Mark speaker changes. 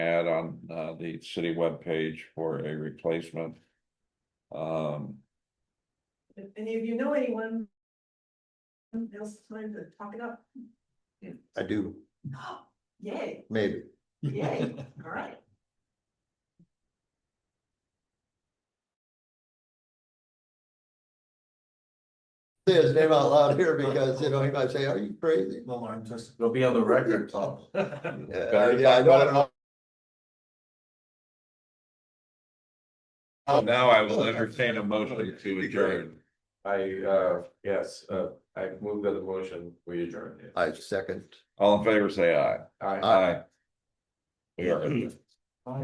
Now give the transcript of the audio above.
Speaker 1: ad on uh the city webpage for a replacement. Um,
Speaker 2: If any of you know anyone. Now's the time to talk it up.
Speaker 3: I do,
Speaker 2: Yay,
Speaker 3: maybe.
Speaker 2: yay, all right.
Speaker 3: Say his name out loud here because, you know, he might say, are you crazy?
Speaker 4: Well, I'm just, it'll be on the record.
Speaker 3: Uh, yeah, I know.
Speaker 1: now I will entertain a motion to adjourn.
Speaker 4: I, uh, yes, uh, I move that the motion, we adjourn it.
Speaker 3: I second.
Speaker 1: All in favor, say aye.
Speaker 4: Aye.
Speaker 3: Aye.
Speaker 1: We are adjourned.